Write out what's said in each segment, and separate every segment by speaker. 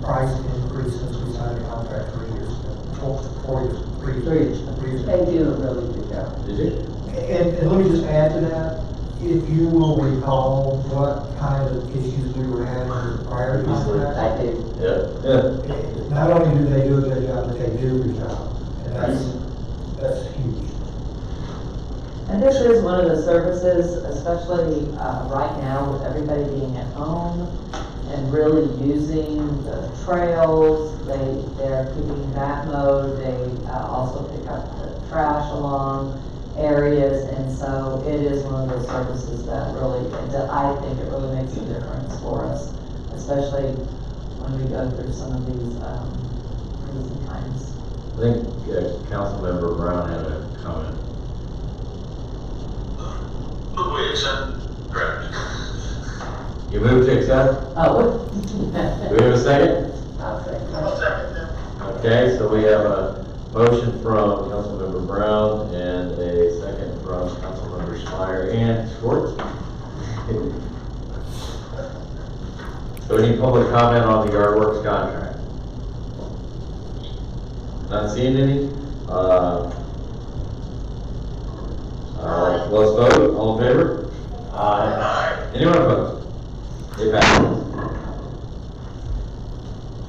Speaker 1: price increase since we signed the contract three years ago, four, four years, three, three years, three years.
Speaker 2: They
Speaker 1: ago.
Speaker 2: do a really good job.
Speaker 3: Did it?
Speaker 1: And, and let me just add to that, if you will recall what kind of issues we were having prior to that.
Speaker 2: I do.
Speaker 3: Yeah. Yeah.
Speaker 1: Not only do they do a good job, but they do a good job, and that's, that's huge.
Speaker 4: And this is one of the services, especially uh, right now with everybody being at home and really using the trails. They, they're keeping that mode. They uh, also pick up the trash along areas. And so it is one of those services that really, that I think it really makes a difference for us, especially when we go through some of these um, crazy times.
Speaker 3: I think uh, Councilmember Brown had a comment.
Speaker 5: But we accept, correct.
Speaker 3: You move to accept?
Speaker 4: Oh.
Speaker 3: Do we have a second?
Speaker 2: I'll say.
Speaker 5: I'll second that.
Speaker 3: Okay, so we have a motion from Councilmember Brown and a second from Councilmember Schreier and Schwartz. So any public comment on the yard works contract? Not seeing any? Uh, uh, let's vote, all in favor? Aye. Anyone opposed? It passes.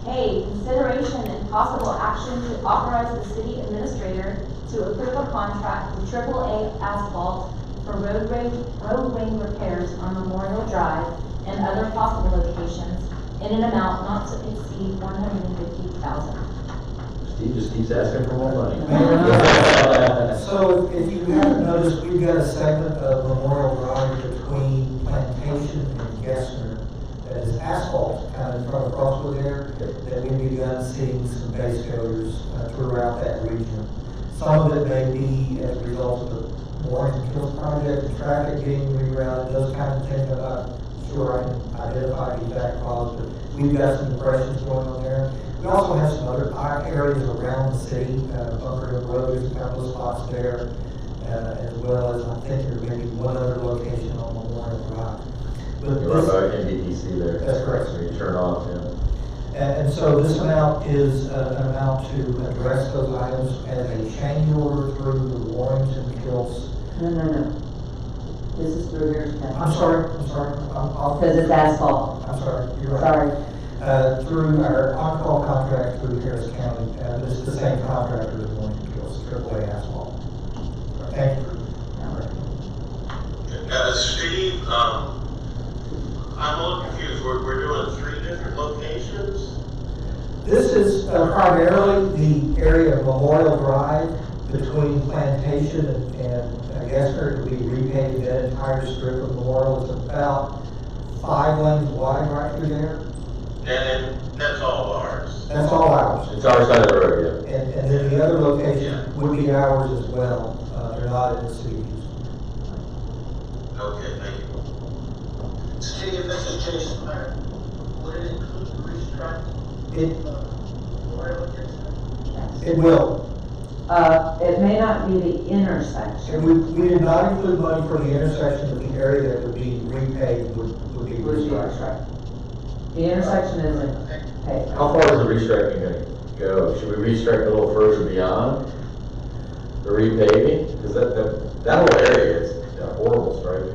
Speaker 6: A, consideration and possible action to authorize the city administrator to approve a contract with Triple A Asphalt for road rage, road ring repairs on Memorial Drive and other possible locations in an amount not to exceed one hundred and fifty thousand.
Speaker 3: Steve just keeps asking for more money.
Speaker 1: So if you haven't noticed, we've got a segment of Memorial Drive between Plantation and Gessner that is asphalt kind of from across over there, that we've begun seeing some base coaters uh, throughout that region. Some of it may be as a result of the Warren Kill project, traffic getting rerouted, those kind of things. I'm not sure I identified the exact cause, but we've got some impressions going on there. We also have some other park areas around the city, uh, Bunker Hill Road, there's a couple of spots there, uh, as well as I think there may be one other location on Memorial Drive. But
Speaker 3: You're
Speaker 1: this,
Speaker 3: about NDDC there.
Speaker 1: That's correct.
Speaker 3: So you turn off, yeah.
Speaker 1: uh, and, and so this amount is uh, an amount to address those items as a change order through the Warrington Hills.
Speaker 4: No, no, no. This is through Harris County.
Speaker 1: I'm sorry, I'm sorry, I'm off,
Speaker 4: Because it's asphalt,
Speaker 1: I'm sorry, you're right.
Speaker 4: sorry.
Speaker 1: Uh, through our on-call contract through Harris County, uh, this is the same contractor as Warrington Hills, AAA asphalt. Thank you.
Speaker 5: Uh, Steve, um, I'm a little confused, we're, we're doing three different locations?
Speaker 1: This is uh, primarily the area of Memorial Drive between Plantation and- and uh, Gessner. It would be repainted, that entire strip of Memorial is about five lanes wide right through there.
Speaker 5: And then that's all ours.
Speaker 1: That's all ours.
Speaker 3: It's our side of the road,
Speaker 1: And, and then the other location would be ours as well. Uh, They're not in the cities.
Speaker 5: Okay, thank you. Steve, this is Jason Meyer. Would it include the restriping
Speaker 1: It,
Speaker 5: of
Speaker 1: it will.
Speaker 4: Uh, it may not be the intersection.
Speaker 1: And we, we did not include money for the intersection of the area that would be repaved would, would be
Speaker 4: Would be
Speaker 1: restriped.
Speaker 4: The intersection isn't
Speaker 3: yeah.
Speaker 4: paved.
Speaker 3: How far is the restriping gonna go? Should we restrict a little further beyond the repaving? Cause that, that, that whole area is a horrible stripe.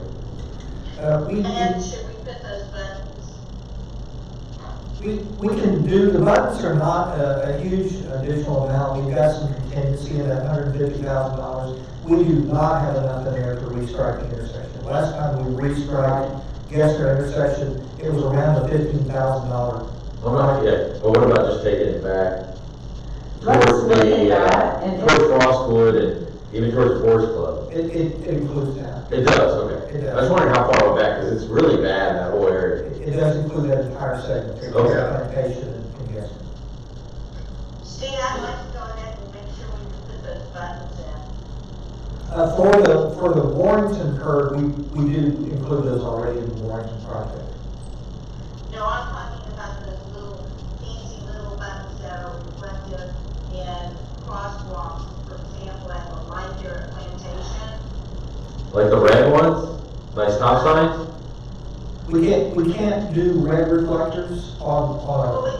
Speaker 1: Uh, we, we-
Speaker 7: And should we put those buttons?
Speaker 1: We, we can do, the buttons are not uh, a, a huge additional amount, we've got some contingency in that hundred fifty thousand dollars. We do not have enough in there to restrike the intersection. Last time we restriked Gessner intersection, it was around the fifteen thousand dollar.
Speaker 3: Well, not yet, but what about just taking it back?
Speaker 4: Let's
Speaker 3: towards
Speaker 4: look at
Speaker 3: the, uh,
Speaker 4: that and-
Speaker 3: Towards Frostwood and even towards Forest Club.
Speaker 1: It, it includes that,
Speaker 3: It does, okay.
Speaker 1: It does.
Speaker 3: I was wondering how far back, cause it's really bad, that whole
Speaker 1: it
Speaker 3: area.
Speaker 1: it does include that entire segment, it was
Speaker 3: Okay.
Speaker 1: plantation and Gessner.
Speaker 7: Steve, I'd like to go ahead and make sure we can put those buttons in.
Speaker 1: Uh, for the, for the Warrington curve, we, we do include those already in the Warrington project.
Speaker 7: No, I'm talking about those little fancy little buttons that are reflective in crosswalks, for example, at the light here at Plantation.
Speaker 3: Like the red ones, like stop signs?
Speaker 1: We can't, we can't do red reflectors on, on a
Speaker 7: Well, we